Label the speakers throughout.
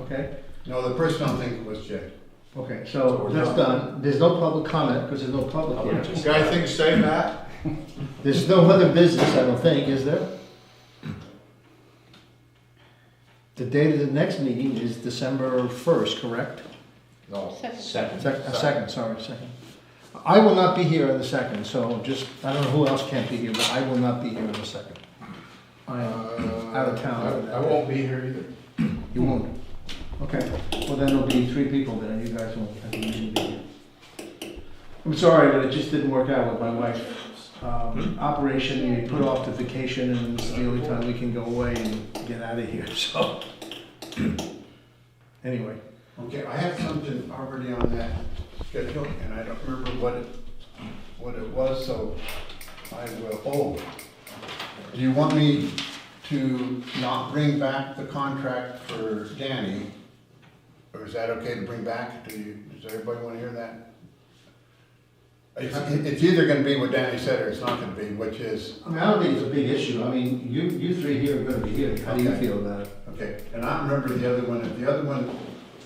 Speaker 1: okay?
Speaker 2: No, the personal thing was Jay.
Speaker 1: Okay, so that's done. There's no public comment because there's no public here.
Speaker 2: Got anything to say, Matt?
Speaker 1: There's no other business, I don't think, is there? The date of the next meeting is December first, correct?
Speaker 2: No.
Speaker 3: Second.
Speaker 1: Sec- A second, sorry, second. I will not be here on the second, so just, I don't know who else can't be here, but I will not be here on the second. I uh, am out of town.
Speaker 2: Uh, I I won't be here either.
Speaker 1: You won't? Okay, well then it'll be three people then, and you guys won't, I think you should be here. I'm sorry, but it just didn't work out with my wife's um, operation, we put off the vacation, and this is the only time we can go away and get out of here, so. Anyway,
Speaker 2: Okay, I have something already on that schedule, and I don't remember what it, what it was, so I will, oh. Do you want me to not bring back the contract for Danny? Or is that okay to bring back? Do you, does everybody wanna hear that? It's, it's either gonna be what Danny said, or it's not gonna be, which is,
Speaker 1: I mean, I don't think it's a big issue, I mean, you, you three here are gonna be here, how do you
Speaker 2: Okay.
Speaker 1: feel about it?
Speaker 2: Okay, and I remember the other one, and the other one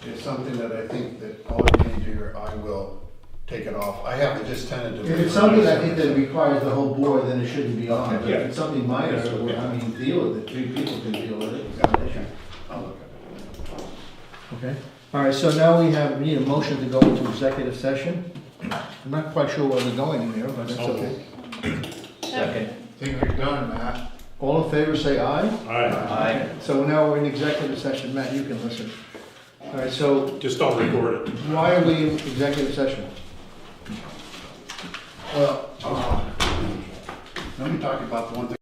Speaker 2: is something that I think that all of you do, or I will take it off. I have it just tentatively.
Speaker 1: If it's something I think that requires the whole board, then it shouldn't be on, but if it's something minor, where, I mean, deal with it, three people can deal with it, it's not an issue.
Speaker 2: I'll look at
Speaker 1: Okay, all right, so now we have, we need a motion to go into executive session. I'm not quite sure where we're going in there, but that's okay.
Speaker 3: Second.
Speaker 2: it. Think we're done, Matt.
Speaker 1: All in favor, say aye.
Speaker 4: Aye.
Speaker 3: Aye.
Speaker 1: So now we're in executive session, Matt, you can listen. All right, so
Speaker 4: Just don't record it.
Speaker 1: why are we in executive session?
Speaker 2: Well, uh, let me talk about the one thing